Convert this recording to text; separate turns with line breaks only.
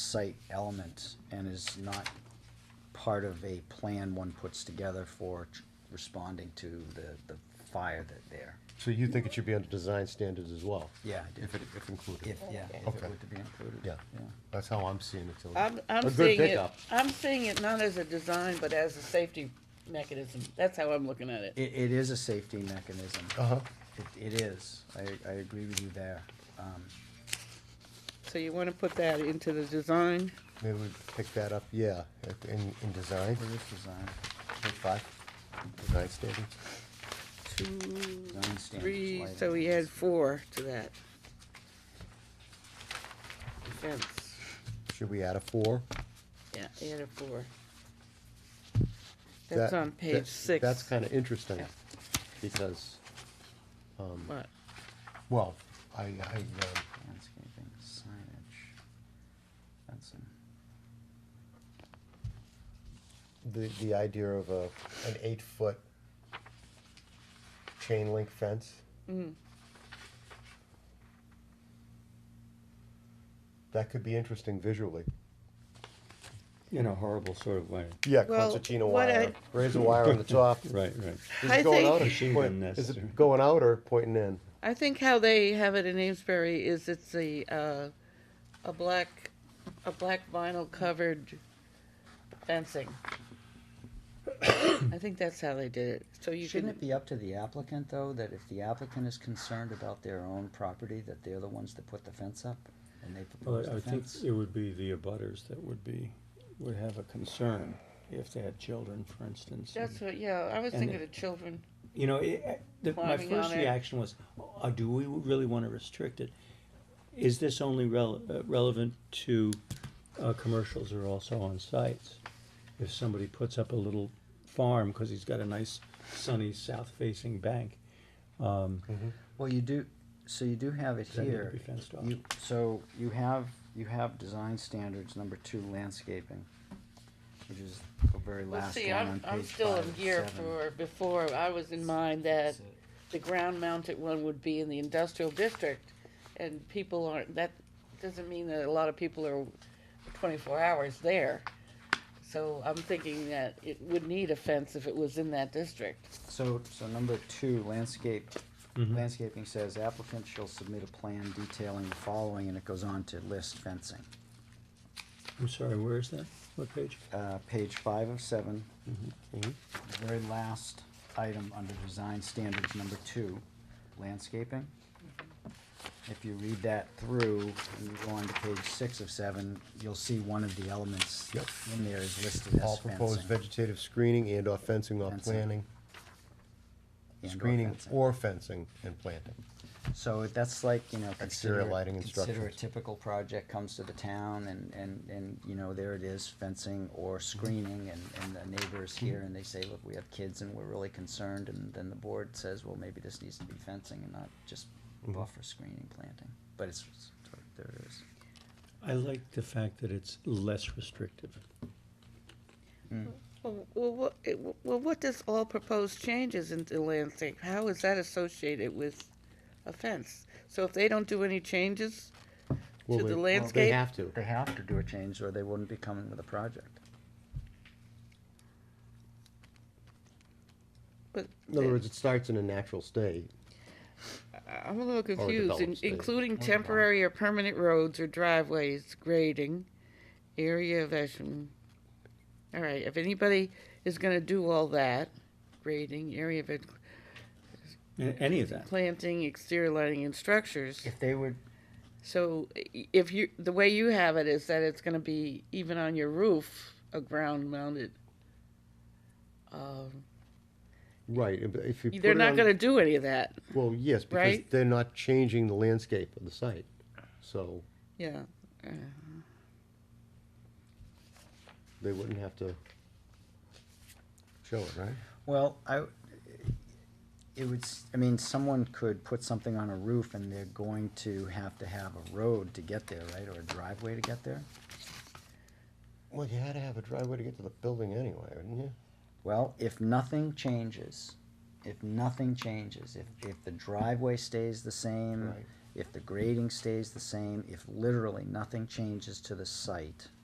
site element and is not part of a plan one puts together for tr- responding to the, the fire that there.
So you think it should be under design standards as well?
Yeah, I do.
If it, if included?
If, yeah, if
Okay.
it were to be included.
Yeah. That's how I'm seeing it, Tilly.
I'm, I'm
A good
seeing it,
pickup.
I'm seeing it not as a design, but as a safety mechanism. That's how I'm looking at it.
It, it is a safety mechanism.
Uh-huh.
It, it is. I, I agree with you there. Um,
So you wanna put that into the design?
Maybe we pick that up, yeah, at- in, in design,
where is design?
page five, design standards.
Two,
standards,
three,
lighting.
so we add four to that. Defense,
Should we add a four?
yeah, add a four.
That-
That's on
that-
page six.
That's kind of interesting,
Yeah.
because,
What?
well, I, I, um,
Landscaping, signage. That's, a-
the, the idea of a, an eight-foot chain link fence.
Mm.
That could be interesting visually.
In a horrible sort of way.
Yeah,
Well,
concertina
what
wire, razor wire on the top.
Right, right.
Is
I
it going
think-
out or
It's even
point- Is
necessary.
it going out or pointing in?
I think how they have it in Amesbury is it's a, uh, a black, a black vinyl covered fencing. I think that's how they did it, so you
shouldn't it
can,
be up to the applicant, though, that if the applicant is concerned about their own property, that they're the ones that put the fence up? And they propose
But
the
I think
fence?
it would be the abutters that would be, would have a concern if they had children, for instance. and-
that's what, yeah, I was
And
thinking
it-
of children.
You know, it, I- the, my
Climbing
first
on it.
reaction was, uh, do we really want to restrict it? Is this only rel- uh, relevant to uh, commercials or also on sites? If somebody puts up a little farm because he's got a nice sunny south-facing bank,
Well, you do, so you do have it
Then it'd
here.
be fenced off.
You, so you have, you have design standards, number two, landscaping, which is the very
Well,
last
see,
one on
I'm, I'm
page
still
five
in
of
gear
seven.
for, before, I was in mind that the ground mounted one would be in the industrial district, and people aren't, that doesn't mean that a lot of people are twenty-four hours there. So I'm thinking that it would need a fence if it was in that district.
So, so number two, landscape,
Mhm.
landscaping says applicant shall submit a plan detailing the following, and it goes on to list fencing.
I'm sorry, where is that? What page?
Uh, page five of seven,
Mm-hmm.
the very last item under design standards, number two, landscaping. If you read that through and you go on to page six of seven, you'll see one of the elements
Yep.
in there is listed as
All proposed
fencing.
vegetative screening and or fencing or
Fencing.
planting,
and/or
screening
fencing.
or fencing and planting.
So it- that's like, you know, consider,
lighting
consider a
instructions.
typical project comes to the town and, and, and, you know, there it is, fencing or screening and, and the neighbors here and they say, look, we have kids and we're really concerned and then the board says, well, maybe this needs to be fencing and not just buffer screening planting, but it's, it's- there it is.
I like the fact that it's less restrictive.
Well, what, well, what does all proposed changes in the landscape, how is that associated with a fence? So if they don't do any changes
Well,
to
they-
the
well,
landscape?
They have to.
They have to do a change or they wouldn't be coming with a project.
But
In other words, it starts in a natural state.
I'm a little confused,
developed
In-
state.
including temporary or permanent roads or driveways, grading, area of action. All right, if anybody is gonna do all that, grading, area of, it-
A- Any of that.
planting, exterior lighting and structures.
If they would,
So i- if you, the way you have it is that it's gonna be even on your roof, a ground mounted. Um,
Right, if- if you put
they're
it
not
on-
gonna do any of that,
Well, yes, because
Right?
they're not changing the landscape of the site, so
yeah. uh.
they wouldn't have to show it, right?
well, I, it would, s- I mean, someone could put something on a roof and they're going to have to have a road to get there, right, or a driveway to get there?
Well, you had to have a driveway to get to the building anyway, wouldn't you?
Well, if nothing changes, if nothing changes, if, if the driveway stays the same,
Right.
if the grading stays the same, if literally nothing changes to the site,